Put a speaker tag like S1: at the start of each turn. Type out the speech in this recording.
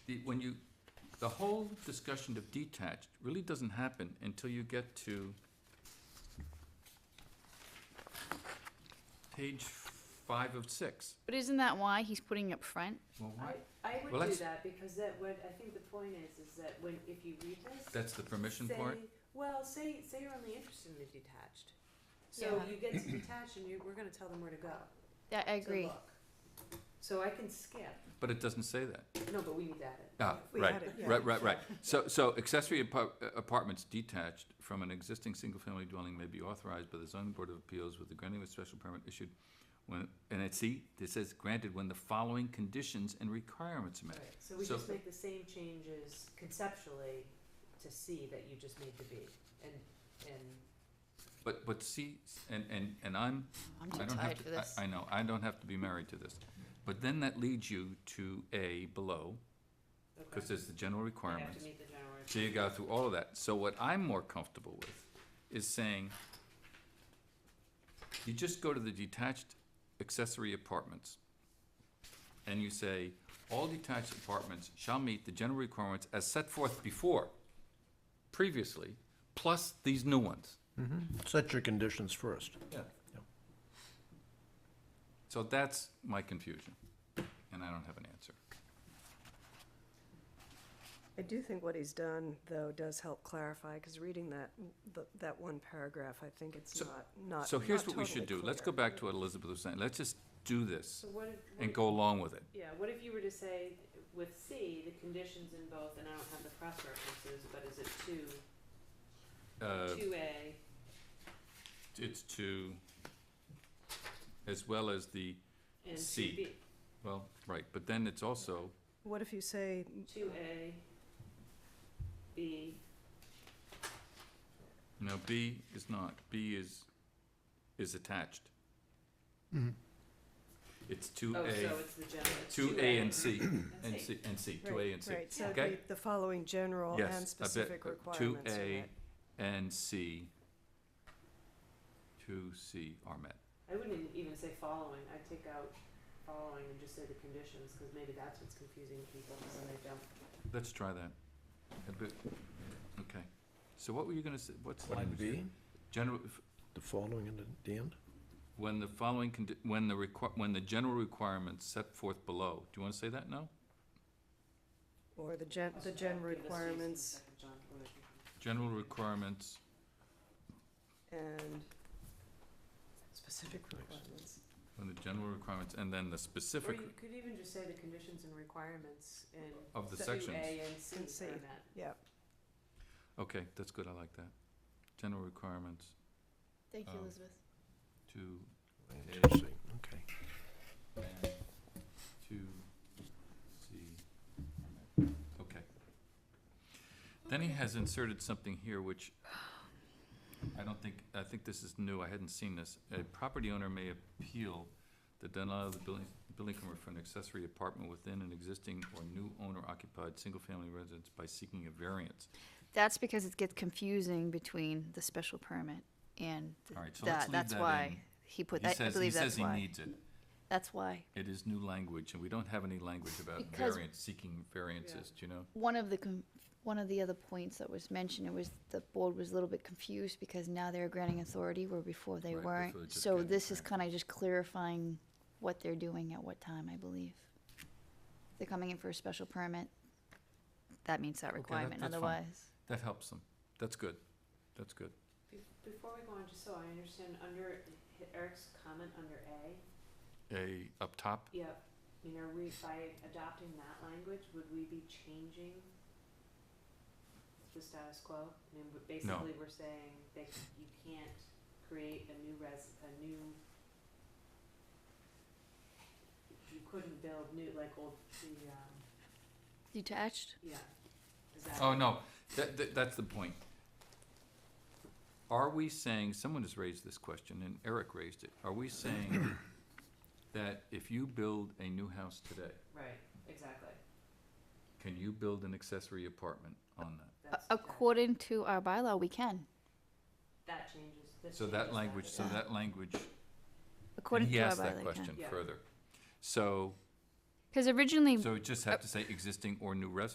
S1: the, when you, the whole discussion of detached really doesn't happen until you get to page five of six.
S2: But isn't that why he's putting up front?
S1: Well,
S3: I,
S1: why-
S3: I
S1: Well,
S3: would do
S1: that's-
S3: that, because that would, I think the point is, is that when, if you read this,
S1: That's the permission
S3: say,
S1: part?
S3: well, say, say you're only interested in the detached. So
S2: Yeah.
S3: you get to detached and you, we're gonna tell them where to go,
S2: Yeah, I
S3: to
S2: agree.
S3: look. So I can skip,
S1: But it doesn't say that.
S3: no, but we need to add it.
S1: Ah,
S4: We
S1: right,
S4: had it, yeah.
S1: right, right, right. So, so accessory apar- uh, apartments detached from an existing single-family dwelling may be authorized by the zoning board of appeals with the granting of special permit issued when, and it, see, it says granted when the following conditions and requirements are met.
S3: Right, so we
S1: So-
S3: just make the same changes conceptually to C that you just made to B, and, and,
S1: But, but see, and, and, and I'm,
S2: I'm
S1: I
S2: too
S1: don't
S2: tired
S1: have
S2: for
S1: to,
S2: this.
S1: I, I know, I don't have to be married to this. But then that leads you to A below, cause
S3: okay,
S1: there's the general
S3: I have
S1: requirements.
S3: to meet the general.
S1: So you go through all of that. So what I'm more comfortable with is saying, you just go to the detached accessory apartments. And you say, all detached apartments shall meet the general requirements as set forth before, previously, plus these new ones.
S5: Set your conditions first.
S1: Yeah.
S5: Yep.
S1: So that's my confusion, and I don't have an answer.
S4: I do think what he's done, though, does help clarify, because reading that, th- that one paragraph, I think it's
S1: So-
S4: not, not
S1: So here's
S4: not
S1: what we should
S4: totally
S1: do. Let's go
S4: clear.
S1: back to what Elizabeth was saying. Let's just do this
S3: So what if, what
S1: and
S3: if-
S1: go along with it.
S3: Yeah, what if you were to say with C, the conditions in both, and I don't have the cross references, but is it two,
S1: Uh,
S3: two A?
S1: it's to, as well as the,
S3: And
S1: C.
S3: two B,
S1: well, right, but then it's also,
S4: What if you say,
S3: two A, B,
S1: no, B is not, B is, is attached. It's two
S3: oh,
S1: A,
S3: so it's the general, it's
S1: two A and C, and
S3: C.
S1: C, and C, two A
S4: right,
S1: and C.
S4: right, so
S1: Okay.
S4: the, the following general
S1: Yes, I
S4: and
S1: bet,
S4: specific
S1: uh, two
S4: requirements are
S1: A.
S4: met.
S1: And C, two C are met.
S3: I wouldn't even say following, I'd take out following and just say the conditions, cause maybe that's what's confusing people, so they don't.
S1: Let's try that. A bit, okay. So what were you gonna say, what's? the language there? General,
S5: The following and at the end?
S1: When the following, condi- when the requi- when the general requirements set forth below, do you wanna say that now?
S4: Or the gen, the gen requirements
S1: General requirements,
S4: and specific requirements.
S1: when the general requirements, and then the
S3: Or
S1: specific
S3: you could even just say the conditions and requirements in
S1: of the
S4: So-
S3: two
S1: sections.
S3: A and C
S4: And C.
S3: are met.
S1: Okay, that's good, I like that. General requirements
S2: Thank
S1: um,
S2: you, Elizabeth.
S1: to,
S5: And two C, Okay.
S1: and to, see, okay. Then he has inserted something here which I don't think, I think this is new, I hadn't seen this. A property owner may appeal the denial of the building, building permit for an accessory apartment within an existing or new owner occupied single-family residence by seeking a variance.
S2: That's because it gets confusing between the special permit and th-
S1: All right, so let's
S2: that,
S1: leave
S2: that's
S1: that
S2: why
S1: in.
S2: he put
S1: He
S2: that, I
S1: says, he
S2: believe
S1: says
S2: that's
S1: he
S2: why.
S1: needs it.
S2: That's why.
S1: It is new language and we don't have any language about
S2: Because-
S1: variance, seeking variances, do you know?
S2: One of the, con- one of the other points that was mentioned, it was the board was a little bit confused because now they're granting authority where before they
S1: Right, before they
S2: weren't.
S1: just
S2: So
S1: granted,
S2: this is
S1: right.
S2: kind of just clarifying what they're doing at what time, I believe. They're coming in for a special permit. That meets
S1: that-
S2: that requirement,
S1: that's fine.
S2: otherwise.
S1: That helps them. That's good. That's good.
S3: Be- Before we go on, just so I understand, under Eric's comment under A,
S1: A, up top,
S3: yep, you know, we, by adopting that language, would we be changing the status quo? I mean, but basically, we're saying that you can't create a new res, a new you couldn't build new, like old, the, um,
S2: Detached?
S3: yeah, is that?
S1: Oh, no, that, that, that's the point. Are we saying, someone has raised this question, and Eric raised it, are we saying that if you build a new house today,
S3: Right, exactly,
S1: can you build an accessory apartment on that?
S3: that's, that,
S2: According to our bylaw, we can.
S3: that changes, this changes.
S1: So that language, so
S3: yeah.
S1: that language,
S2: According to our
S1: yes,
S2: bylaw,
S1: that
S2: we can.
S1: question
S3: Yeah.
S1: further. So,
S2: Because originally
S1: So we just have to say existing or new residents.